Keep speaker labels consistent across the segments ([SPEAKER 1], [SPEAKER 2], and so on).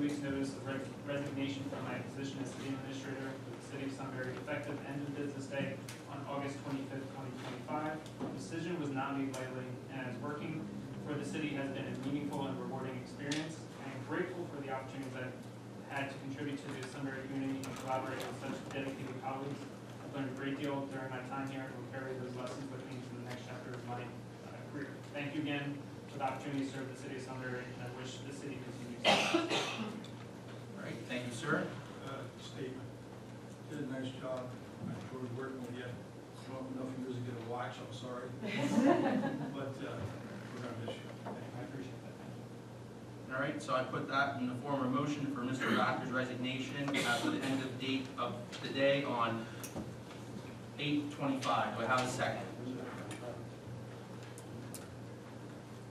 [SPEAKER 1] week's notice of reg- resignation from my position as city administrator for the city of Sunbury effective end of business day on August twenty-fifth, twenty twenty-five. The decision was not made lightly, and as working for the city has been a meaningful and rewarding experience. I am grateful for the opportunities I've had to contribute to the Sunbury community and collaborate with such dedicated colleagues. I've learned a great deal during my time here and will carry those lessons with me to the next chapter of my uh, career. Thank you again for the opportunity to serve the city of Sunbury, and I wish the city continues.
[SPEAKER 2] All right, thank you, sir.
[SPEAKER 3] uh, statement. Did a nice job. I enjoyed working with you. I don't know if you really get a watch, I'm sorry. But uh, we're gonna miss you.
[SPEAKER 1] I appreciate that, thank you.
[SPEAKER 2] All right, so I put that in the form of a motion for Mr. Rocker's resignation as of the end of date of the day on eight twenty-five. Do I have a second?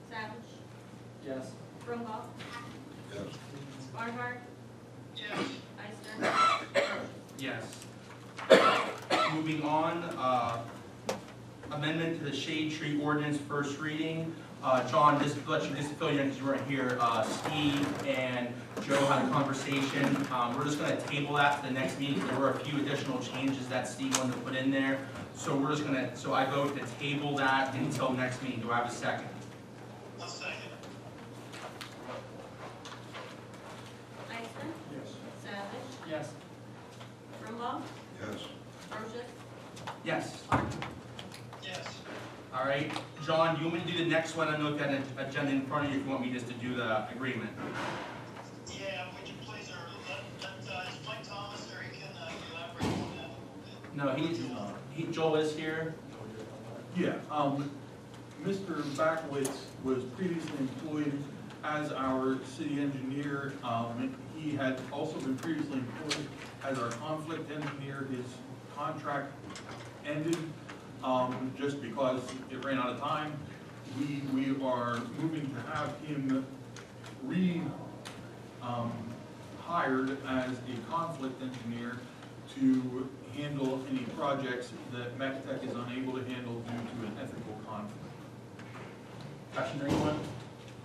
[SPEAKER 4] Savage.
[SPEAKER 5] Yes.
[SPEAKER 4] Brumbault.
[SPEAKER 6] yes,
[SPEAKER 4] Barnhart. Yes.
[SPEAKER 2] Yes. Moving on, uh, amendment to the shade tree ordinance, first reading. Uh, John, just to let you, just to fill you in, because you weren't here, uh, Steve and Joe had a conversation. Um, We're just gonna table that to the next meeting, 'cause there were a few additional changes that Steve wanted to put in there. So we're just gonna, so I vote to table that until next meeting. Do I have a second?
[SPEAKER 4] Iceland.
[SPEAKER 3] Yes.
[SPEAKER 4] Savage.
[SPEAKER 1] Yes.
[SPEAKER 4] Brumbault.
[SPEAKER 6] yes,
[SPEAKER 4] Brochus.
[SPEAKER 2] Yes.
[SPEAKER 4] Martin.
[SPEAKER 2] All right. John, do you want me to do the next one? I know if you had an agenda in front of you, if you want me just to do the agreement.
[SPEAKER 7] Yeah, would you please, or let, let, uh, is Mike Thomas, or he can uh, elaborate on that a
[SPEAKER 2] No,
[SPEAKER 7] little bit?
[SPEAKER 2] he's,
[SPEAKER 7] Uh,
[SPEAKER 2] He, Joel is here.
[SPEAKER 8] Yeah, um, Mr. Backowitz was previously employed as our city engineer. Um, he had also been previously employed as our conflict engineer. His contract ended, um, just because it ran out of time. We, we are moving to have him re, um, hired as a conflict engineer to handle any projects that MacTech is unable to handle due to an ethical conflict.
[SPEAKER 2] Question anyone?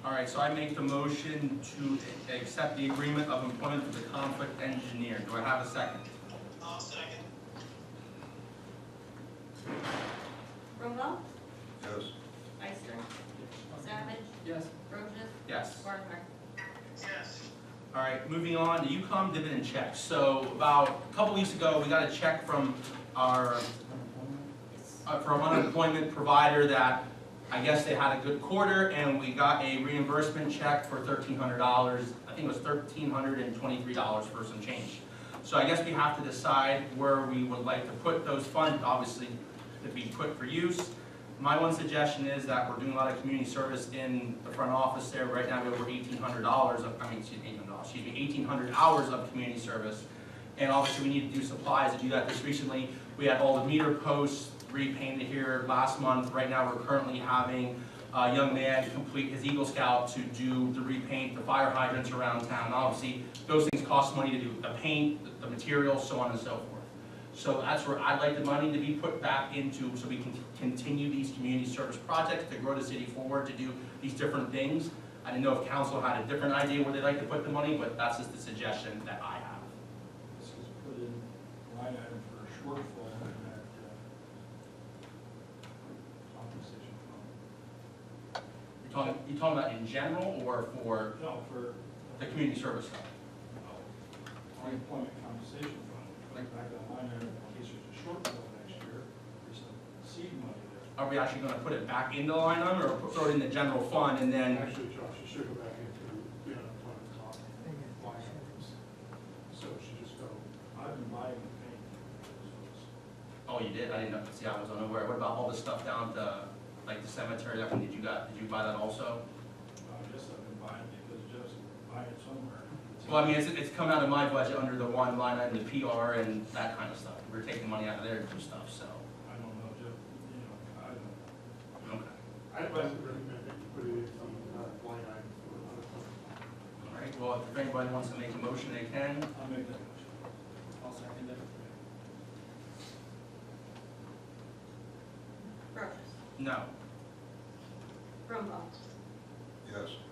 [SPEAKER 2] All right, so I make the motion to a- accept the agreement of employment for the conflict engineer. Do I have a second?
[SPEAKER 7] I'll second,
[SPEAKER 4] Brumbault.
[SPEAKER 6] yes,
[SPEAKER 4] Iceland. Savage.
[SPEAKER 5] Yes.
[SPEAKER 4] Brochus.
[SPEAKER 2] Yes.
[SPEAKER 4] Barnhart.
[SPEAKER 7] yes,
[SPEAKER 2] All right, moving on to UCOM dividend check. So about a couple weeks ago, we got a check from our, uh, from an unemployment provider that I guess they had a good quarter and we got a reimbursement check for thirteen hundred dollars. I think it was thirteen hundred and twenty-three dollars for some change. So I guess we have to decide where we would like to put those funds, obviously, to be put for use. My one suggestion is that we're doing a lot of community service in the front office there. Right now, we have over eighteen hundred dollars of, I mean, excuse me, $1,800, excuse me, eighteen hundred hours of community service. And obviously, we need to do supplies to do that. Just recently, we had all the meter posts repainted here last month. Right now, we're currently having a young man complete his Eagle Scout to do, to repaint the fire hydrants around town. Obviously, those things cost money to do, the paint, the- the materials, so on and so forth. So that's where I'd like the money to be put back into, so we can continue these community service projects, to grow the city forward, to do these different things. I didn't know if council had a different idea where they'd like to put the money, but that's just the suggestion that I have.
[SPEAKER 3] This is put in line item for a shortfall in that uh, compensation fund.
[SPEAKER 2] You're talking, you talking about in general or for
[SPEAKER 3] No, for
[SPEAKER 2] the community service stuff?
[SPEAKER 3] uh, unemployment compensation fund. Put it back on line item in case there's a shortfall next year. There's some seed money there.
[SPEAKER 2] Are we actually gonna put it back in the line item or put- throw it in the general fund and then,
[SPEAKER 3] Actually, Josh, you should go back into the unemployment comp line items. So it should just go, I've been buying the paint.
[SPEAKER 2] oh, you did, I didn't know, see, I was unaware. What about all the stuff down at the, like the cemetery, that one, did you got, did you buy that also?
[SPEAKER 3] I guess I've been buying it because Jeff's been buying it somewhere.
[SPEAKER 2] Well, I mean, it's, it's come out of my budget under the one line item, the PR and that kind of stuff. We're taking money out of there to do stuff, so.
[SPEAKER 3] I don't know, Jeff, you know, I don't.
[SPEAKER 2] okay.
[SPEAKER 3] I'd like to recommend that you put it in some line item for unemployment.
[SPEAKER 2] All right, well, if anybody wants to make a motion, they can.
[SPEAKER 3] I'll make that motion.
[SPEAKER 5] I'll second it.
[SPEAKER 4] Brochus.
[SPEAKER 2] No.
[SPEAKER 4] Brumbault.
[SPEAKER 6] yes.